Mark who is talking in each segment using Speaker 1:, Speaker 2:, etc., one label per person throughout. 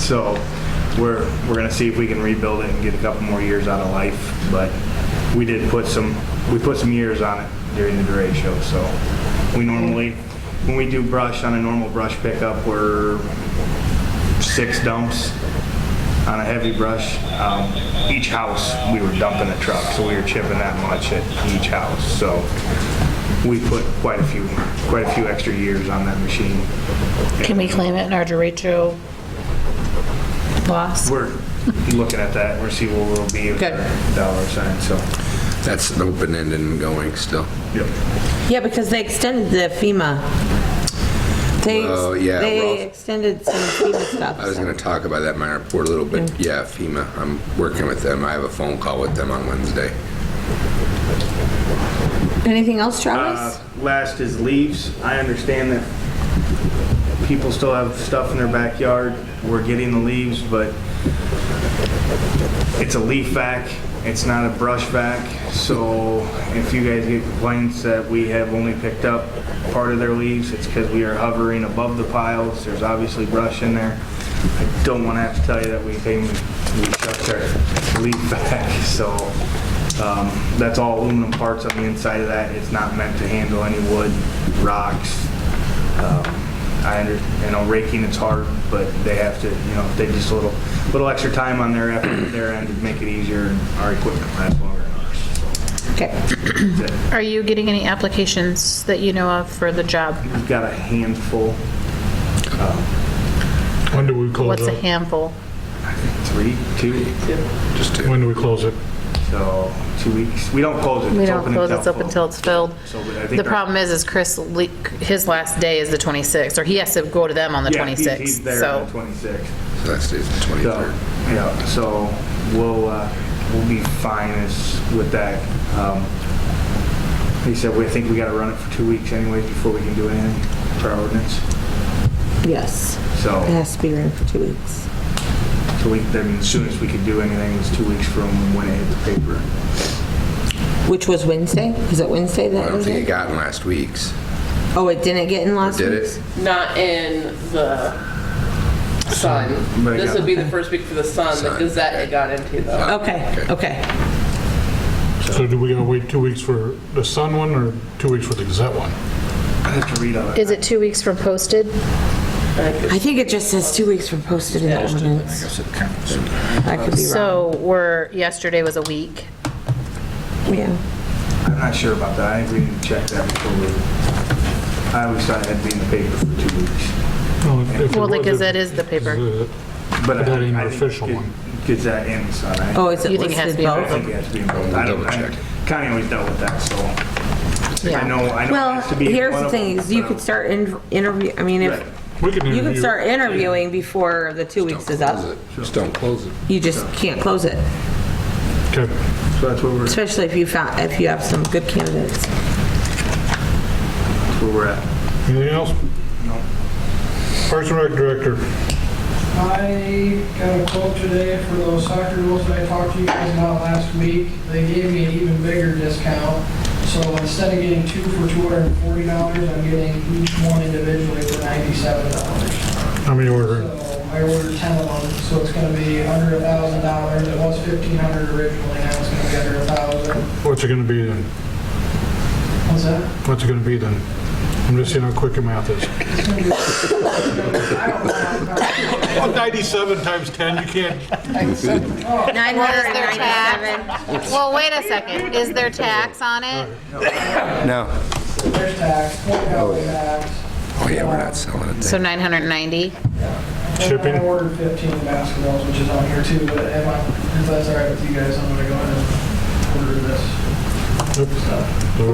Speaker 1: So we're, we're gonna see if we can rebuild it and get a couple more years out of life, but we did put some, we put some years on it during the derecho, so we normally, when we do brush on a normal brush pickup, we're six dumps on a heavy brush. Um, Each house, we were dumping a truck, so we were chipping that much at each house, so we put quite a few, quite a few extra years on that machine.
Speaker 2: Can we claim it in our derecho loss?
Speaker 1: We're looking at that, we're seeing where we'll be with
Speaker 3: Good.
Speaker 1: the dollar sign, so.
Speaker 4: That's an open-ended and going still.
Speaker 1: yep.
Speaker 3: Yeah, because they extended the FEMA. They, ex-
Speaker 4: Well, yeah,
Speaker 3: they
Speaker 4: well-
Speaker 3: extended some FEMA
Speaker 4: I was
Speaker 3: stuff.
Speaker 4: going to talk about that in my report a little bit. Yeah, FEMA, I'm working with them. I have a phone call with them on Wednesday.
Speaker 3: Anything else,
Speaker 1: Uh,
Speaker 3: Travis?
Speaker 1: Last is leaves. I understand that people still have stuff in their backyard. We're getting the leaves, but it's a leaf vac. It's not a brush vac. So if you guys get complaints that we have only picked up part of their leaves, it's because we are hovering above the piles. There's obviously brush in there. I don't want to have to tell you that we came, we shut our leaf vac. So um, that's all aluminum parts on the inside of that. It's not meant to handle any wood, rocks, um, I under, you know, raking it's hard, but they have to, you know, they just a little, little extra time on their effort, their end to make it easier, and our equipment lasts longer than ours.
Speaker 3: Okay.
Speaker 1: That's it.
Speaker 2: Are you getting any applications that you know of for the job?
Speaker 1: We've got a handful,
Speaker 5: When do we close
Speaker 2: What's a
Speaker 5: it?
Speaker 2: handful?
Speaker 1: three, two,
Speaker 4: Just to,
Speaker 5: When do we close it?
Speaker 1: so two weeks. We don't close it.
Speaker 2: We
Speaker 1: It's
Speaker 2: don't
Speaker 1: open
Speaker 2: close
Speaker 1: until
Speaker 2: this up
Speaker 1: full.
Speaker 2: until it's filled.
Speaker 1: So, but I think
Speaker 2: The
Speaker 1: our-
Speaker 2: problem is, is Chris, le- his last day is the 26th, or he has to go to them on the
Speaker 1: Yeah, he's- He's
Speaker 2: 26th,
Speaker 1: there on
Speaker 2: so.
Speaker 1: the twenty-sixth.
Speaker 4: so that's the
Speaker 1: So,
Speaker 4: 23rd.
Speaker 1: yeah, so we'll, uh, we'll be fine as, with that. Um, He said, we think we gotta run it for two weeks anyway before we can do anything for our ordinance.
Speaker 3: Yes. It
Speaker 1: So,
Speaker 3: has to be in for two weeks.
Speaker 1: so we, then as soon as we could do anything was two weeks from when it hit the paper.
Speaker 3: Which was Wednesday? Was it Wednesday
Speaker 4: I
Speaker 3: that
Speaker 4: don't
Speaker 3: was
Speaker 4: think it
Speaker 3: it?
Speaker 4: got in last week's.
Speaker 3: Oh, it didn't get in last
Speaker 4: Did
Speaker 3: week?
Speaker 4: it?
Speaker 6: not in the sun.
Speaker 1: But it
Speaker 6: This
Speaker 1: got-
Speaker 6: would be the first week for the sun, the
Speaker 4: Sun,
Speaker 6: Gazette
Speaker 4: okay.
Speaker 6: it got into
Speaker 4: Oh,
Speaker 6: though.
Speaker 3: Okay, okay.
Speaker 5: So do we gotta wait two weeks for the Sun one or two weeks for the Gazette one?
Speaker 1: I have to read all that.
Speaker 2: Is it two weeks from posted?
Speaker 3: I think it just says two weeks from posted in the ordinance. I could be wrong.
Speaker 2: So we're, yesterday was a week.
Speaker 3: Yeah.
Speaker 1: I'm not sure about that. I think we need to check that before we, I always thought it had to be in the paper for two weeks.
Speaker 2: Well, the Gazette is the paper.
Speaker 1: But I-
Speaker 5: That ain't
Speaker 1: I
Speaker 5: an
Speaker 1: think
Speaker 5: official
Speaker 1: it
Speaker 5: one.
Speaker 1: Gets that in, so I.
Speaker 3: Oh, is it
Speaker 2: You think it has to
Speaker 3: listed
Speaker 2: be
Speaker 1: I
Speaker 2: on
Speaker 3: both?
Speaker 1: think it has to be in both. I don't,
Speaker 4: Double check.
Speaker 1: I- Connie always dealt with that, so. I
Speaker 2: Yeah.
Speaker 1: know, I know. it
Speaker 3: Well,
Speaker 1: has to be in
Speaker 3: here's
Speaker 1: one
Speaker 3: the
Speaker 1: of them,
Speaker 3: thing, is you
Speaker 1: but
Speaker 3: could start in- interview, I mean,
Speaker 1: Right.
Speaker 3: if,
Speaker 5: We can
Speaker 3: you could
Speaker 5: interview,
Speaker 3: start interviewing before the two
Speaker 4: Don't
Speaker 3: weeks is
Speaker 4: close
Speaker 3: up.
Speaker 4: it. Just don't close it.
Speaker 3: You just can't close it,
Speaker 5: okay,
Speaker 1: So that's where we're, that's
Speaker 3: especially if you found, if you have some good candidates.
Speaker 1: where we're at.
Speaker 5: anything else?
Speaker 1: No.
Speaker 5: Parks and Rec Director,
Speaker 7: I got a quote today for those soccer rules that I talked to you guys about last week. They gave me an even bigger discount. So instead of getting two for two hundred and forty dollars, I'm getting each one individually for ninety-seven dollars.
Speaker 5: how many ordering?
Speaker 7: So I ordered ten of them, so it's gonna be under a thousand dollars. It was fifteen hundred originally, now it's gonna be under a thousand.
Speaker 5: What's it gonna be then?
Speaker 7: What's that?
Speaker 5: What's it gonna be then? I'm just seeing how quick your math is.
Speaker 7: It's gonna be- I don't know. how to-
Speaker 5: 97 times 10, you can't.
Speaker 3: Nine hundred and ninety-seven.
Speaker 2: Well, wait a second, is there tax on it?
Speaker 4: No.
Speaker 7: There's tax, point value tax.
Speaker 4: Oh, yeah, we're not selling it.
Speaker 2: So 990?
Speaker 5: Shipping?
Speaker 7: I ordered 15 basketballs, which is on here too, but if I- if that's all right with you guys, I'm gonna go ahead and order this stuff.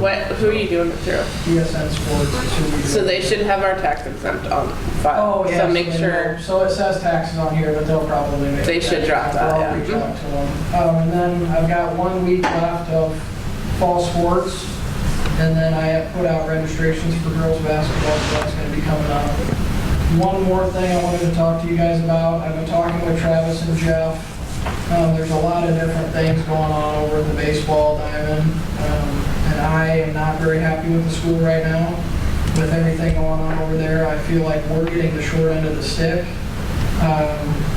Speaker 6: What, who are you doing it through?
Speaker 7: ESN Sports, it's who we
Speaker 6: So
Speaker 7: do.
Speaker 6: they should have our tax exempt on
Speaker 7: Oh,
Speaker 6: file.
Speaker 7: yeah.
Speaker 6: So make
Speaker 7: they
Speaker 6: sure,
Speaker 7: will. So it says taxes on here, but they'll probably make.
Speaker 6: They
Speaker 7: it
Speaker 6: should drop
Speaker 7: back.
Speaker 6: that,
Speaker 7: I'll
Speaker 6: yeah.
Speaker 7: reach out to them. Um, and then I've got one week left of fall sports, and then I have put out registrations for girls' basketball, so that's gonna be coming up. One more thing I wanted to talk to you guys about, I've been talking with Travis and Jeff. Um, there's a lot of different things going on over at the baseball diamond, um, and I am not very happy with the school right now. With everything going on over there, I feel like we're getting the short end of the stick. Um,